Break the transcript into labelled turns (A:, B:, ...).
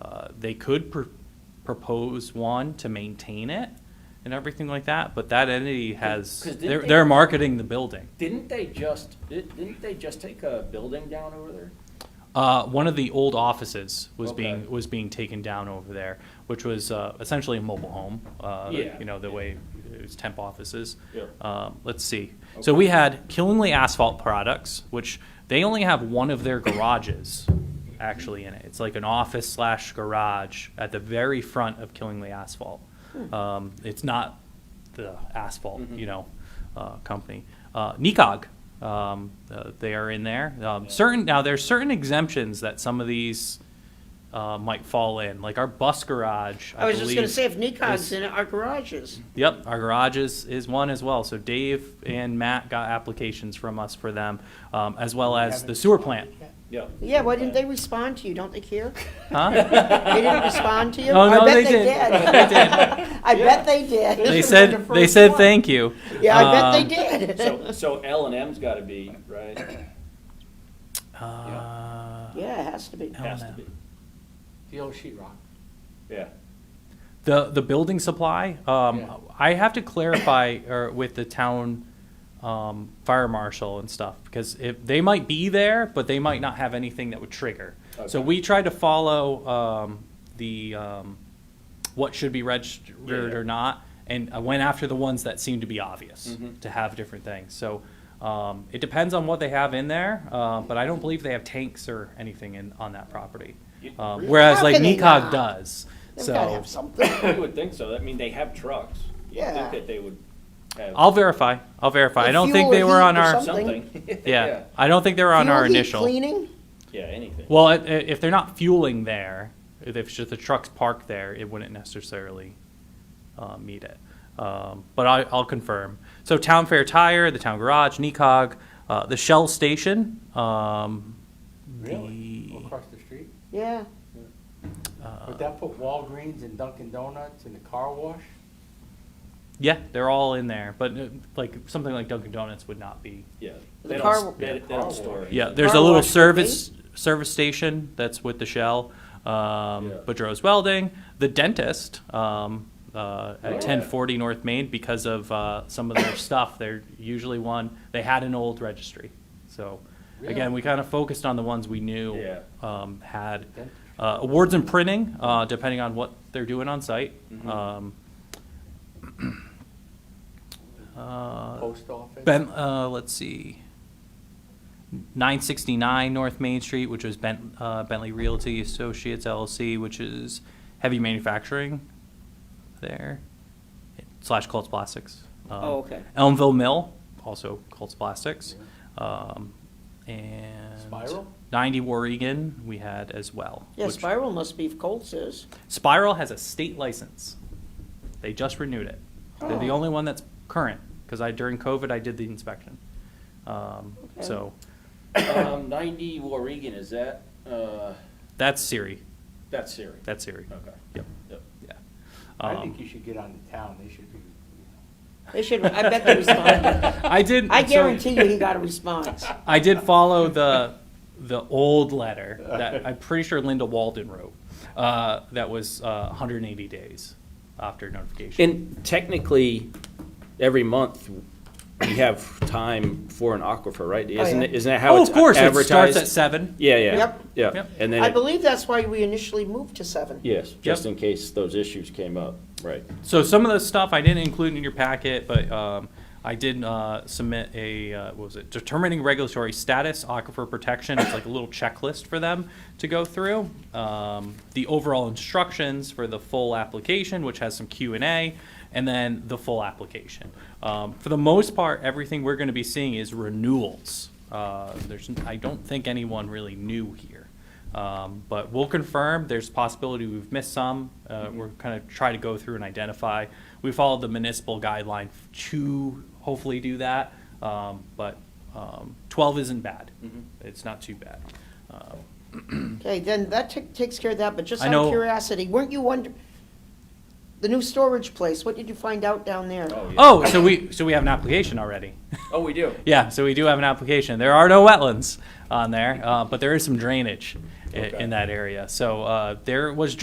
A: Uh, they could pr- propose one to maintain it and everything like that, but that entity has,
B: 'cause didn't
A: they're,
B: they-
A: they're marketing the building.
B: Didn't they just, di- didn't they just take a building down over there?
A: Uh, one of the old offices was
B: Okay.
A: being, was being taken down over there, which was, uh, essentially a mobile home. Uh,
B: Yeah.
A: you know, the way, it was temp offices.
B: Yeah.
A: Um, let's see. So we had Killingly Asphalt Products, which they only have one of their garages actually in it. It's like an office slash garage at the very front of Killingly Asphalt.
B: Hmm.
A: Um, it's not the asphalt,
B: Mhm.
A: you know, uh, company. Uh, Nikog, um, uh, they are in there. Um, Certain now, there's certain exemptions that some of these uh, might fall in, like our bus garage. I,
C: I was just gonna
A: believe,
C: say, if Nikon's
A: is-
C: in it, our garages.
A: Yep, our garages is one as well. So Dave and Matt got applications from us for them, um, as well as the sewer plant.
B: Yeah.
C: Yeah, why didn't they respond to you? Don't they care?
A: Huh?
C: They didn't respond to you?
A: Oh, no,
C: I bet
A: they did.
C: I bet they did.
A: They said they said thank you.
C: Yeah, I
A: Um,
C: bet they did.
B: So, so L and M's gotta be,
A: Oh,
B: right?
A: Um, uh,
C: Yeah, it has to be.
B: Has to
A: L&M.
B: be,
D: The old sheetrock.
B: yeah.
A: The, the building supply,
D: Yeah.
A: um, I have to clarify, or with the town, um, fire marshal and stuff, because if, they might be there, but they might not have anything that would trigger. So
B: Okay.
A: we tried to follow, um, the, um, what should be registered
B: Yeah.
A: or not, and I went after the ones that seemed to be obvious,
B: Mhm.
A: to have different things, so, um, it depends on what they have in there, uh, but I don't believe they have tanks or anything in, on that property.
B: You-
A: Um,
B: really?
A: whereas
C: How
A: like
C: can they
A: NECOG
C: not?
A: does,
C: They've
A: so.
C: gotta have something.
B: You would think so, I mean, they have trucks, you'd
C: Yeah.
B: think that they would have.
A: I'll verify. I'll verify. I
C: Like
A: don't think
C: fuel
A: they
C: or
A: were
C: heat
A: on
C: or
A: our.
C: something.
B: Something.
A: Yeah, I don't think they were on
C: Fuel
A: our
C: heat,
A: initial.
C: Cleaning?
B: Yeah, anything.
A: Well, i- i- if they're not fueling there, if it's just the trucks parked there, it wouldn't necessarily uh, meet it. Um, But I, I'll confirm. So Town Fair Tire, the Town Garage, NECOG, uh, the Shell Station. um,
D: Really?
A: the-
D: Across the street?
C: Yeah.
D: Would that put Walgreens and Dunkin' Donuts and the car wash?
A: Yeah, they're all in there, but uh, like, something like Dunkin' Donuts would not be.
B: Yeah.
C: The
B: They
C: car
B: don't,
C: will-
B: they they don't store.
A: Yeah,
B: anything.
A: there's a
C: Car
A: little
C: wash would be?
A: service, service station that's with the Shell, um,
B: Yeah.
A: Boudreaux's Welding, the dentist, um, uh,
B: Oh, yeah.
A: at ten forty North Main because of, uh, some of their stuff. They're usually one, they had an old registry. So, again,
D: Really?
A: we kind of focused on the ones we knew,
B: Yeah.
A: um, had,
D: Dentist.
A: uh, awards and printing, uh, depending on what they're doing on site.
B: Mhm.
A: Um, uh,
D: Post office?
A: Ben, uh, let's see. Nine sixty-nine North Main Street, which is Bent, uh, Bentley Realty Associates LLC, which is heavy manufacturing there slash Colts Plastics. Um,
C: Oh, okay.
A: Elmville Mill, also Colts Plastics. Um, and
D: Spiral?
A: ninety Warrigan we had as well.
C: Yeah,
A: which-
C: Spiral must be if Colts is.
A: Spiral has a state license. They just renewed it. They're the
C: Oh.
A: only one that's current, because I, during COVID, I did the inspection. Um,
C: Okay.
A: so,
B: Um, ninety Warrigan, is that, uh,
A: that's Siri,
B: that's Siri?
A: that's Siri,
B: Okay.
A: yep,
B: Yep.
A: yeah.
D: I
A: Um,
D: think you should get on the town, they should be, you
C: They should, I bet they responded.
A: I did.
C: I
A: so-
C: guarantee you he got a response.
A: I did follow the the old letter that I'm pretty sure Linda Walden wrote. Uh, that was uh, 180 days after notification.
B: And technically, every month, we have time for an aquifer, right? Isn't,
C: yeah.
B: it- isn't that how
A: oh,
B: it's
A: of course,
B: advertised?
A: it starts at seven.
B: Yeah, yeah,
C: Yep.
B: yeah.
A: Yep.
B: And
C: I
B: then, it-
C: believe that's why we initially moved to seven.
B: yes, just in case those issues came up, right.
A: So some of the stuff I didn't include in your packet, but um, I did uh, submit a, uh, what was it, determining regulatory status, aquifer protection, it's like a little checklist for them to go through. Um, The overall instructions for the full application, which has some Q and A, and then the full application. Um, For the most part, everything we're going to be seeing is renewals. Uh, There's, I don't think anyone really new here. Um, But we'll confirm, there's possibility we've missed some. Uh, We're kind of try to go through and identify. We followed the municipal guideline to hopefully do that, um, but um, 12 isn't bad. It's not too bad. Uh,
C: Okay, then that ta- takes care of that, but just
A: I
C: out of
A: know-
C: curiosity, weren't you wonder, the new storage place, what did you find out down there?
A: Oh, so we, so we have an application already.
B: Oh, we do?
A: Yeah, so we do have an application. There are no wetlands on there, uh, but there is some drainage i-
B: Okay.
A: in that area. So uh, there was